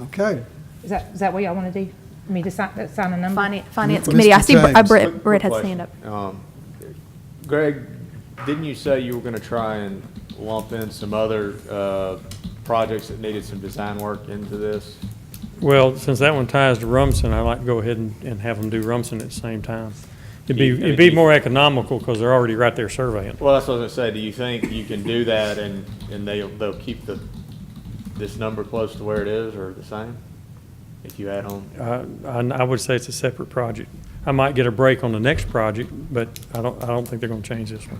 Okay. Is that, is that what y'all want to do? I mean, to sign, that sign a number? Finance, finance Mr. committee, I see Br- uh, James. Brett, Quick- Brett had quick his hand up. question. Um, Greg, didn't you say you were gonna try and lump in some other, uh, projects that needed some design work into this? Well, since that one ties to Rumson, I'd like to go ahead and, and have them do Rumson at the same time. It'd be, Yeah, it'd be it'd be- more economical because they're already right there surveying. Well, that's what I was gonna say, do you think you can do that and, and they'll, they'll keep the, this number close to where it is or the same? If you add on, Uh, I, I would say it's a separate project. I might get a break on the next project, but I don't, I don't think they're gonna change this one.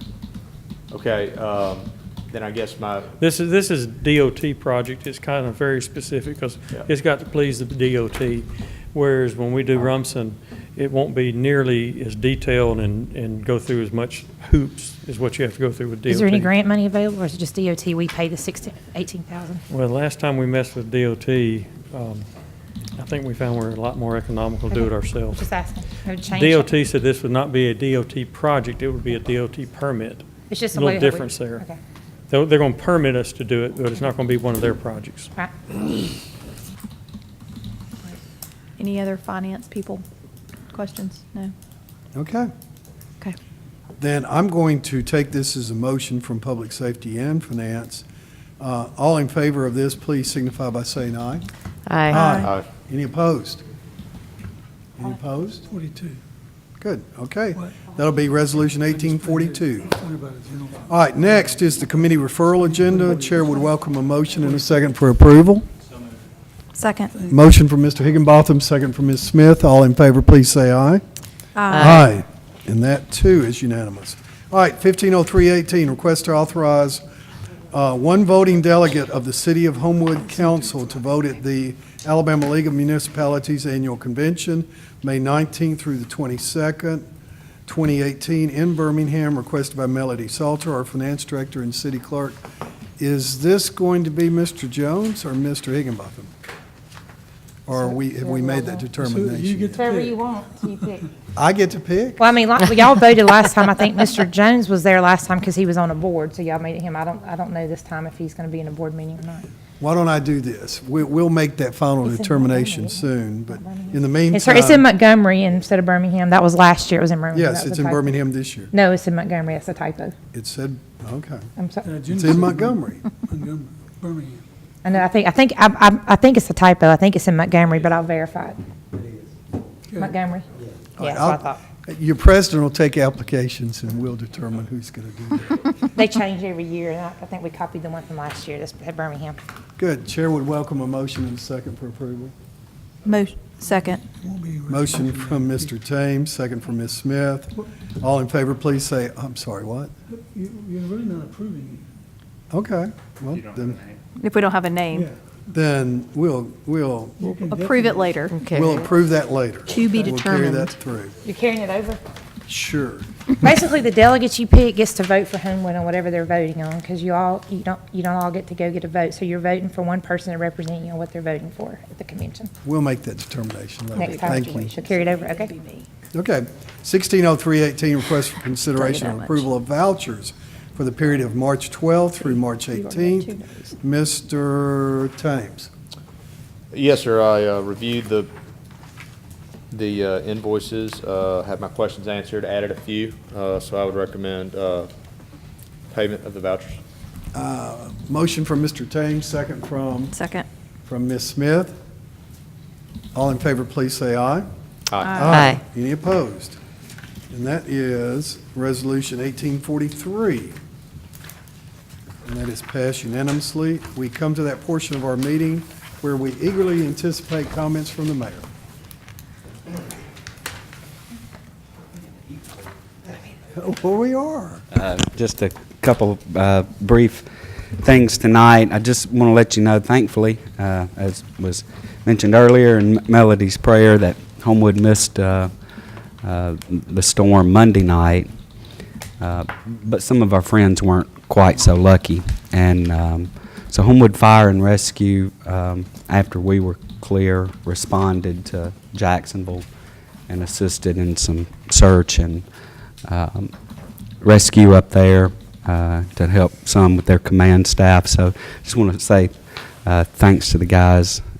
okay, um, then I guess my, This is, this is DOT project, it's kind of very specific, because Yeah. it's got to please the DOT, whereas when we do Rumson, it won't be nearly as detailed and, and go through as much hoops as what you have to go through with DOT. Is there any grant money available, or is it just DOT, we pay the 16, 18,000? Well, last time we messed with DOT, um, I think we found we're a lot more economical to do it Okay. ourselves. Just asking, I would change it. DOT said this would not be a DOT project, it would be a DOT permit. It's just a way little that we- difference there. Okay, They're, they're gonna permit us to do it, but it's not gonna be one of their projects. All right. Any other finance people? Questions? No? Okay. Okay. Then I'm going to take this as a motion from Public Safety and Finance. Uh, All in favor of this, please signify by saying aye. Aye. Any opposed? Any opposed? 42. Good, okay. That'll be Resolution 1842. What about it, general? All right, next is the committee referral agenda. Chair would welcome a motion and a second for approval. Second. Motion from Mr. Higginbotham, second from Ms. Smith. All in favor, please say aye. Aye. And that, too, is unanimous. All right, 150318, request to authorize uh, one voting delegate of the City of Homewood Council to vote at the Alabama League of Municipalities Annual Convention, May 19th through the 22nd, 2018, in Birmingham, requested by Melody Salter, our Finance Director and City Clerk. Is this going to be Mr. Jones or Mr. Higginbotham? Or are we, have we made that So you determination? get yet? to uh, Whatever pick. you want, you pick. I get to pick? Well, I mean, like, y'all voted last time, I think Mr. Jones was there last time because he was on a board, so y'all made him, I don't, I don't know this time if he's going to be in a board meeting or not. Why don't I do this? We, we'll make that final It's in determination soon, Birmingham, but isn't it? in the It's, it's in meantime, Montgomery instead of Birmingham, that was last year, it was in Birmingham. yes, That was it's a in typo. Birmingham this year. No, it's in Montgomery, that's a typo, It said, okay. I'm sorry. Uh, Jim It's said in Montgomery. Montgomery, Birmingham. I know, I think, I think, I, I, I think it's a typo. I think it's in Montgomery, but I'll verify it. Montgomery? All Yeah, right, that's what I I'll- thought. Your president will take applications and we'll determine who's going to do that. They change every year, and I, I think we copied the one from last year, that's at Birmingham. Good. Chair would welcome a motion and a second for approval. Mo, second. Won't be- Motion from Mr. Thames, second from Ms. Smith. All in favor, please say, I'm sorry, what? You- You're really not approving Okay, well, then, If we don't have a it. name, then we'll, we'll, You can approve it definitely- later. we'll approve that later. To be We'll carry that determined. through. You're carrying it over? Sure. Basically, the delegates you pick gets to vote for Homewood on whatever they're voting on, because you all, you don't, you don't all get to go get a vote, so you're voting for one person to represent you on what they're voting for at the convention. We'll make that determination later. Next time, Thank you. she'll carry it over, okay? Okay. 160318, request for consideration that and much. approval of vouchers for the period of March 12th through March 18th. Mr. Thames. Yes, sir. I uh, reviewed the, the uh, invoices, uh, had my questions answered, added a few, uh, so I would recommend uh, payment of the vouchers. Uh, Motion from Mr. Thames, second from, Second. from Ms. Smith. All in favor, please say aye. Aye. Aye. Any opposed? And that is Resolution 1843. And that is passed unanimously. We come to that portion of our meeting where we eagerly anticipate comments from the mayor. Well, we are. Uh, Just a couple uh, brief things tonight. I just want to let you know, thankfully, uh, as was mentioned earlier in Melody's prayer, that Homewood missed uh, uh, the storm Monday night, Uh, but some of our friends weren't quite so lucky. And um, so Homewood Fire and Rescue, um, after we were clear, responded to Jacksonville and assisted in some search and um, rescue up there uh, to help some with their command staff. So just want to say uh, thanks to the guys